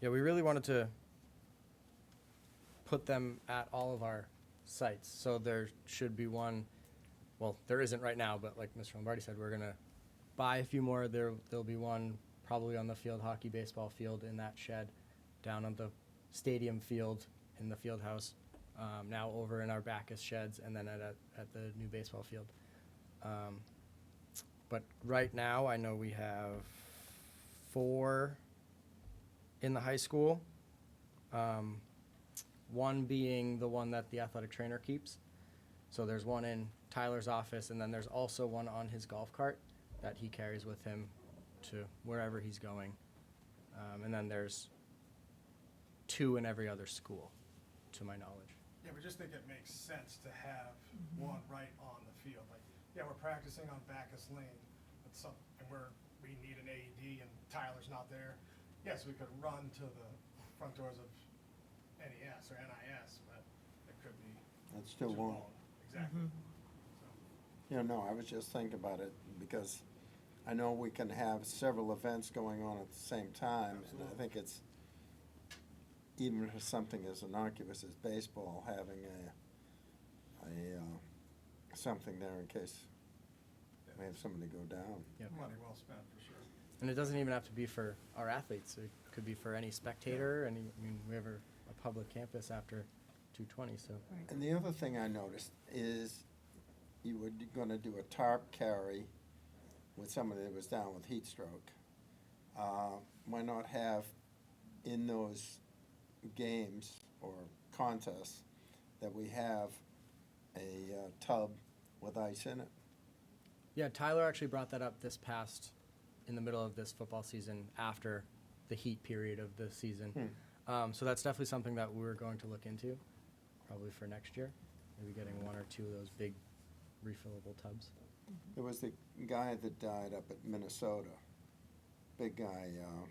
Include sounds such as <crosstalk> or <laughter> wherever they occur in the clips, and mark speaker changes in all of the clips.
Speaker 1: Yeah, we really wanted to put them at all of our sites, so there should be one, well, there isn't right now, but like Mr. Lombardi said, we're gonna buy a few more, there, there'll be one probably on the field hockey baseball field in that shed, down on the stadium field in the field house, um, now over in our Bacchus sheds, and then at, a- at the new baseball field. Um, But right now, I know we have four in the high school. Um, one being the one that the athletic trainer keeps. So there's one in Tyler's office, and then there's also one on his golf cart that he carries with him to wherever he's going. Um, and then there's two in every other school, to my knowledge.
Speaker 2: Yeah, we just think it makes sense to have one right on the field. Like, yeah, we're practicing on Backus Lane, but some, and we're, we need an AED and Tyler's not there. Yes, we could run to the front doors of NES or NIS, but it could be.
Speaker 3: That's still
Speaker 2: too
Speaker 3: one.
Speaker 2: long. Exactly.
Speaker 3: Yeah, no, I was just thinking about it because I know we can have several events going on at the same time. And
Speaker 2: Absolutely.
Speaker 3: I think it's, even for something as innocuous as baseball, having a, a, uh, something there in case we have somebody go down.
Speaker 1: Yep.
Speaker 2: So, Money well spent, for sure.
Speaker 1: And it doesn't even have to be for our athletes. It could be for any spectator. Any, I mean, we have a, a public campus after 220, so
Speaker 4: Right.
Speaker 3: And the other thing I noticed is you were gonna do a tarp carry with somebody that was down with heat stroke. Uh, Why not have in those games or contests that we have a uh, tub with ice in it?
Speaker 1: Yeah, Tyler actually brought that up this past, in the middle of this football season after the heat period of the season. Um, so that's definitely something that we're going to look into, probably for next year. Maybe getting one or two of those big refillable tubs.
Speaker 3: There was the guy that died up at Minnesota, big guy, uh,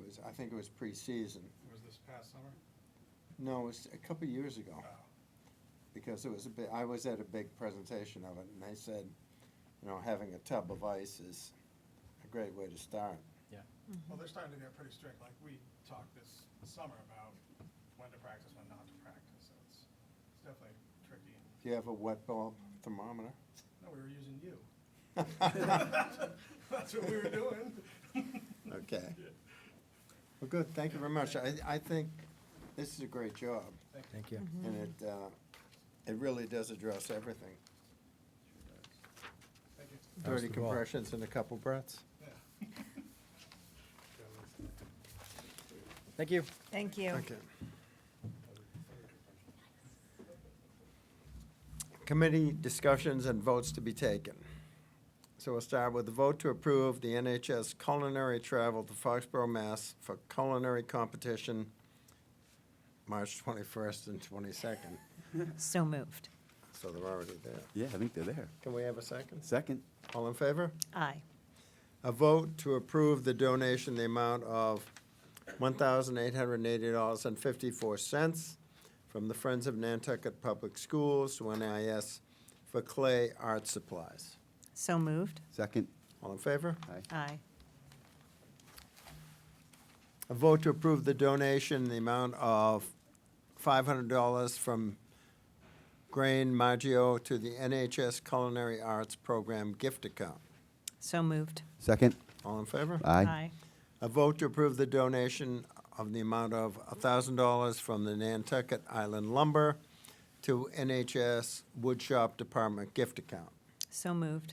Speaker 3: it was, I think it was preseason.
Speaker 2: It was this past summer.
Speaker 3: No, it was a couple of years ago.
Speaker 2: Oh.
Speaker 3: because it was a bit, I was at a big presentation of it, and they said, you know, having a tub of ice is a great way to start.
Speaker 2: Well, they're starting to get pretty strict, like we talked this summer about when to practice, when not to practice, so it's, it's definitely tricky.
Speaker 3: Do you have a wet bulb thermometer?
Speaker 1: <laughs>
Speaker 2: No, we were using you. <laughs> That's what we were doing. <laughs>
Speaker 3: Okay. Well, good, thank you very much. I, I think this is a great job,
Speaker 1: Thank you. Mm-hmm.
Speaker 3: and it, uh, it really does address everything.
Speaker 2: Thank you.
Speaker 3: Thirty
Speaker 1: the ball.
Speaker 3: compressions and a couple breaths.
Speaker 2: Yeah.
Speaker 1: Thank you.
Speaker 4: Thank you.
Speaker 3: Okay. Committee discussions and votes to be taken. So we'll start with the vote to approve the NHS culinary travel to Foxborough, Mass. for culinary competition, March 21st and 22nd.
Speaker 4: So moved.
Speaker 3: So they're already there.
Speaker 5: Yeah, I think they're there.
Speaker 3: Can we have a second?
Speaker 5: Second,
Speaker 3: All in favor?
Speaker 4: Aye.
Speaker 3: A vote to approve the donation, the amount of $1,880.54 from the Friends of Nantucket Public Schools to NIS for clay art supplies.
Speaker 4: So moved.
Speaker 5: second,
Speaker 3: All in favor?
Speaker 5: aye,
Speaker 4: Aye.
Speaker 3: A vote to approve the donation, the amount of $500 from Grain Maggio to the NHS Culinary Arts Program gift account.
Speaker 4: So moved.
Speaker 5: second,
Speaker 3: All in favor?
Speaker 5: aye,
Speaker 3: A vote to approve the donation of the amount of $1,000 from the Nantucket Island Lumber to NHS Woodshop Department gift account.
Speaker 4: So moved.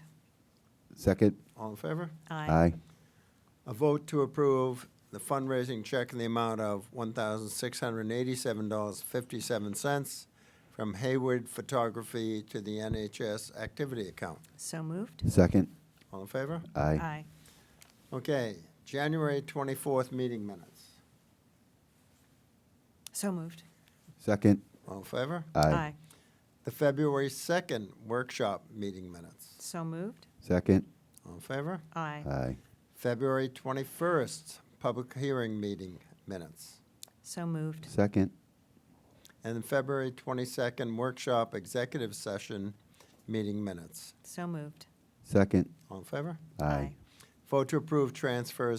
Speaker 5: second,
Speaker 3: All in favor?
Speaker 5: aye,
Speaker 3: A vote to approve the fundraising check in the amount of $1,687.57 from Hayward Photography to the NHS Activity Account.
Speaker 4: So moved.
Speaker 5: second,
Speaker 3: All in favor?
Speaker 5: aye,
Speaker 3: Okay, January 24th meeting minutes.
Speaker 4: So moved.
Speaker 5: second,
Speaker 3: All in favor?
Speaker 5: aye,
Speaker 3: The February 2nd workshop meeting minutes.
Speaker 4: So moved.
Speaker 5: second,
Speaker 3: All in favor?
Speaker 4: Aye.
Speaker 5: aye,
Speaker 3: February 21st, public hearing meeting minutes.
Speaker 4: So moved.
Speaker 5: second,
Speaker 3: And then February 22nd, workshop executive session meeting minutes.
Speaker 4: So moved.
Speaker 5: second,
Speaker 3: All in favor?
Speaker 5: aye.
Speaker 3: Vote to approve transfers